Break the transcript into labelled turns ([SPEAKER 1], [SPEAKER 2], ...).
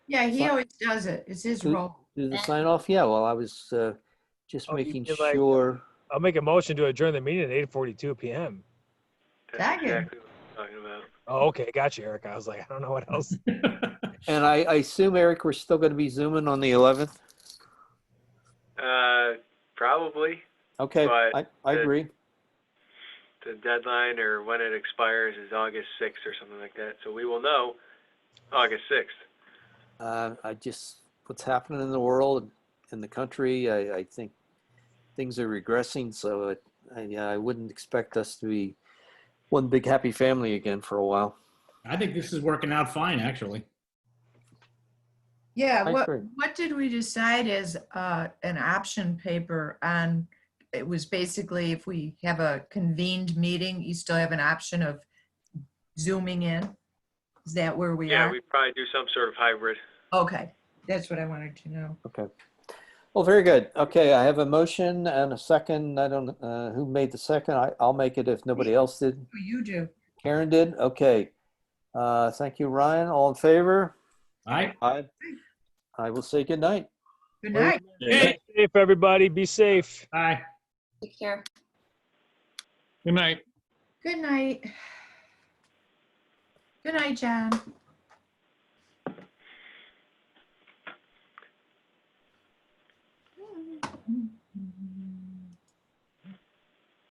[SPEAKER 1] Yeah, he
[SPEAKER 2] Fine.
[SPEAKER 1] always does it. It's his
[SPEAKER 2] Mm.
[SPEAKER 1] role.
[SPEAKER 2] Do the sign off? Yeah, well, I was uh, just
[SPEAKER 3] Oh, you
[SPEAKER 2] making
[SPEAKER 3] did like-
[SPEAKER 2] sure.
[SPEAKER 3] I'll make a motion to adjourn the meeting at eight forty-two PM.
[SPEAKER 1] Second.
[SPEAKER 4] exactly what I'm talking about.
[SPEAKER 3] Oh, okay, got you, Eric. I was like, I don't know what else.
[SPEAKER 2] And I I assume, Eric, we're still going to be zooming on the 11th?
[SPEAKER 4] Uh, probably
[SPEAKER 2] Okay,
[SPEAKER 4] But
[SPEAKER 2] I I
[SPEAKER 4] the-
[SPEAKER 2] agree.
[SPEAKER 4] the deadline or when it expires is August 6th or something like that. So we will know August 6th.
[SPEAKER 2] Uh, I just, what's happening in the world, and in the country, I I think things are regressing, so it- I yeah, I wouldn't expect us to be one big happy family again for a while.
[SPEAKER 5] I think this is working out fine, actually.
[SPEAKER 1] Yeah,
[SPEAKER 2] I
[SPEAKER 1] what,
[SPEAKER 2] agree.
[SPEAKER 1] what did we decide as uh, an option paper on? It was basically if we have a convened meeting, you still have an option of zooming in? Is that where we
[SPEAKER 4] Yeah,
[SPEAKER 1] are?
[SPEAKER 4] we probably do some sort of hybrid.
[SPEAKER 1] Okay, that's what I wanted to know.
[SPEAKER 2] Well, very good. Okay, I have a motion and a second. I don't, uh, who made the second? I- I'll make it if nobody else did.
[SPEAKER 1] Oh, You do.
[SPEAKER 2] Karen did? Okay. Uh, Thank you, Ryan. All in favor?
[SPEAKER 5] All right.
[SPEAKER 2] I, I will say good night.
[SPEAKER 1] Good night.
[SPEAKER 5] Hey.
[SPEAKER 3] Safe, everybody. Be safe.
[SPEAKER 5] Bye.
[SPEAKER 6] Take care.
[SPEAKER 5] Good night.
[SPEAKER 1] Good night. Good night, John.